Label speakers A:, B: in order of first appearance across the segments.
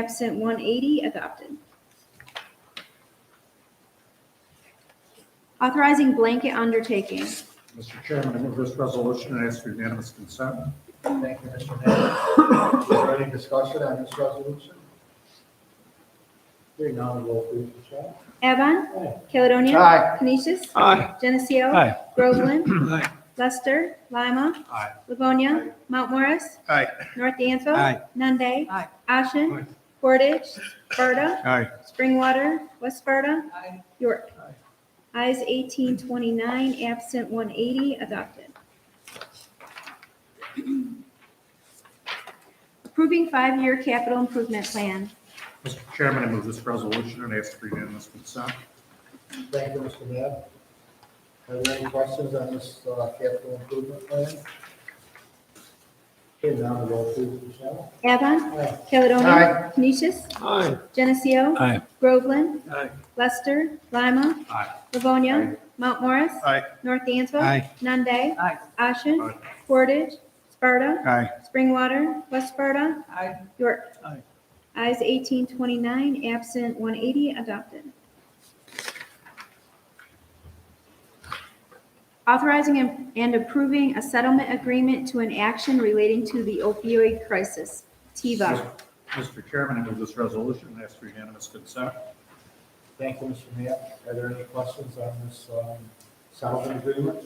A: Absent 180, adopted. Authorizing blanket undertaking.
B: Mr. Chairman, I move this resolution and ask for unanimous consent.
C: Thank you, Mr. Hammond. Is there any discussion on this resolution? Hearing none, roll please, Michelle.
A: Avon.
C: Aye.
A: Caledonia.
C: Aye.
A: Canisius.
D: Aye.
A: Geneseo.
D: Aye.
A: Groveland.
D: Aye.
A: Lester. Lima.
B: Aye.
A: Livonia. Mount Morris.
B: Aye.
A: North Dansville.
D: Aye.
A: Nunde.
E: Aye.
A: Ashen.
B: Aye.
A: Portage. Sparta.
D: Aye.
A: Springwater. West Sparta.
E: Aye.
A: York. Eyes 1829, absent 180, adopted. Approving five-year capital improvement plan.
B: Mr. Chairman, I move this resolution and ask for unanimous consent.
C: Thank you, Mr. Hammond. Are there any questions on this uh, capital improvement plan? Hearing none, roll please, Michelle.
A: Avon.
C: Aye.
A: Caledonia. Canisius.
D: Aye.
A: Geneseo.
D: Aye.
A: Groveland.
D: Aye.
A: Lester. Lima.
B: Aye.
A: Livonia. Mount Morris.
B: Aye.
A: North Dansville.
D: Aye.
A: Nunde.
E: Aye.
A: Ashen.
B: Aye.
A: Portage. Sparta.
D: Aye.
A: Springwater. West Sparta.
E: Aye.
A: York.
D: Aye.
A: Eyes 1829, absent 180, adopted. Authorizing and- and approving a settlement agreement to an action relating to the opioid crisis, TIVA.
B: Mr. Chairman, I move this resolution and ask for unanimous consent.
C: Thank you, Mr. Hammond. Are there any questions on this um, settlement agreement?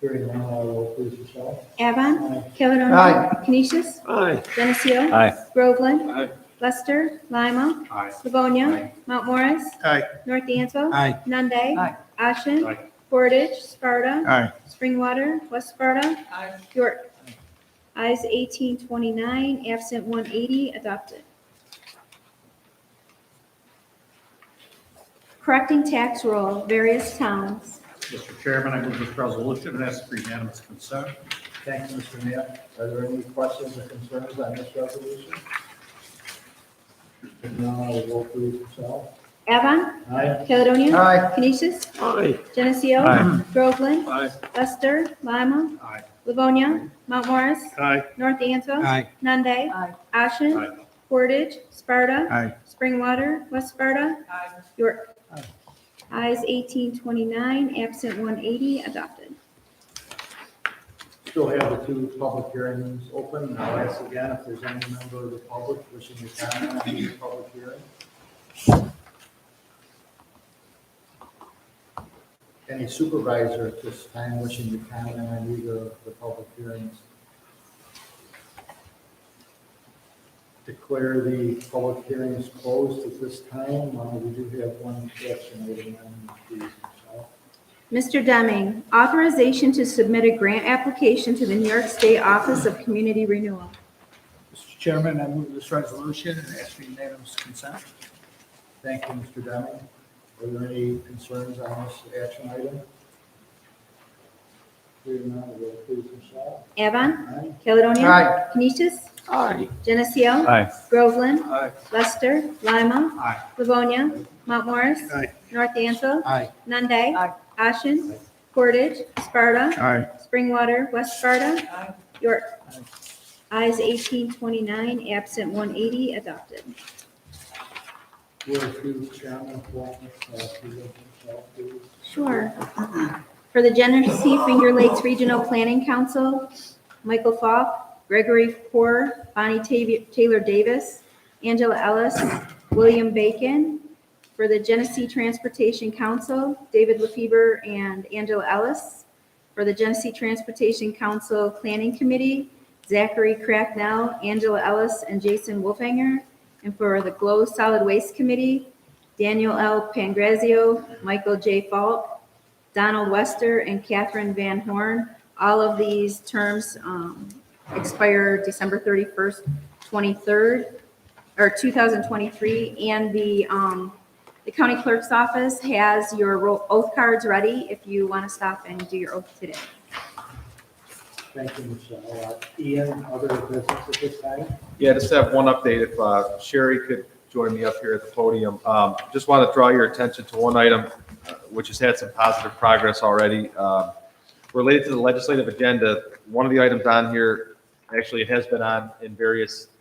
C: Hearing none, roll please, Michelle.
A: Avon.
C: Aye.
A: Caledonia.
C: Aye.
A: Canisius.
D: Aye.
A: Geneseo.
D: Aye.
A: Groveland.
D: Aye.
A: Lester. Lima.
B: Aye.
A: Livonia.
B: Aye.
A: Mount Morris.
D: Aye.
A: North Dansville.
D: Aye.
A: Nunde.
E: Aye.
A: Ashen.
B: Aye.
A: Portage. Sparta.
D: Aye.
A: Springwater. West Sparta.
E: Aye.
A: York. Eyes 1829, absent 180, adopted. Correcting tax roll, various towns.
B: Mr. Chairman, I move this resolution and ask for unanimous consent.
C: Thank you, Mr. Mayor. Are there any questions or concerns on this resolution? If not, I will roll please, Michelle.
A: Avon,
C: Aye.
A: Caledonia.
C: Aye.
A: Canisius,
D: Aye.
A: Geneseo.
D: Aye.
A: Groveland,
D: Aye.
A: Lester, Lima,
B: Aye.
A: Livonia, Mount Morris,
B: Aye.
A: North Dansville.
D: Aye.
A: Nunde,
E: Aye.
B: Aye.
A: Ashen, Portage, Sparta,
D: Aye.
A: Springwater, West Sparta,
E: Aye.
A: York. Eyes 1829, absent 180, adopted.
C: Still have the two public hearings open. I'll ask again if there's any member of the public wishing to comment on this public hearing. Any supervisor at this time wishing to comment on either of the public hearings? Declare the public hearings closed at this time. Uh, We do have one question item on these. Michelle.
A: Mr. Deming, authorization to submit a grant application to the New York State Office of Community Renewal.
F: Mr. Chairman, I move this resolution and ask for unanimous consent.
C: Thank you, Mr. Deming. Are there any concerns on this action item? Hearing none, will please, Michelle.
A: Avon,
C: Aye.
A: Caledonia.
C: Aye.
A: Canisius,
D: Aye.
A: Geneseo.
D: Aye.
A: Groveland.
D: Aye.
A: Lester, Lima.
B: Aye.
A: Livonia, Mount Morris.
D: Aye.
A: North Dansville.
D: Aye.
A: Nunde.
E: Aye.
A: Ashen. Portage. Sparta.
D: Aye.
A: Springwater. West Sparta.
E: Aye.
A: York. Eyes 1829, absent 180, adopted.
C: Will you, Chairman, walk us through the Michelle, please?
A: Sure. For the Genesee Finger Lakes Regional Planning Council, Michael Falk, Gregory Poor, Bonnie Ta- Taylor Davis, Angela Ellis, William Bacon. For the Genesee Transportation Council, David LaFever and Angela Ellis. For the Genesee Transportation Council Planning Committee, Zachary Cracknell, Angela Ellis, and Jason Wolfhanger. And for the Glow Solid Waste Committee, Daniel L. Pangrazio, Michael J. Falk, Donald Wester, and Catherine Van Horn. All of these terms um, expire December 31st, 23rd, or 2023. And the, um, the county clerk's office has your ro- oath cards ready if you want to stop and do your oath today.
C: Thank you, Michelle. Uh, Ian, other business at this time?
G: Yeah, just have one update. If uh, Sherry could join me up here at the podium. Um, Just want to draw your attention to one item, uh, which has had some positive progress already. Um, Related to the legislative agenda, one of the items on here Actually, it has been on in various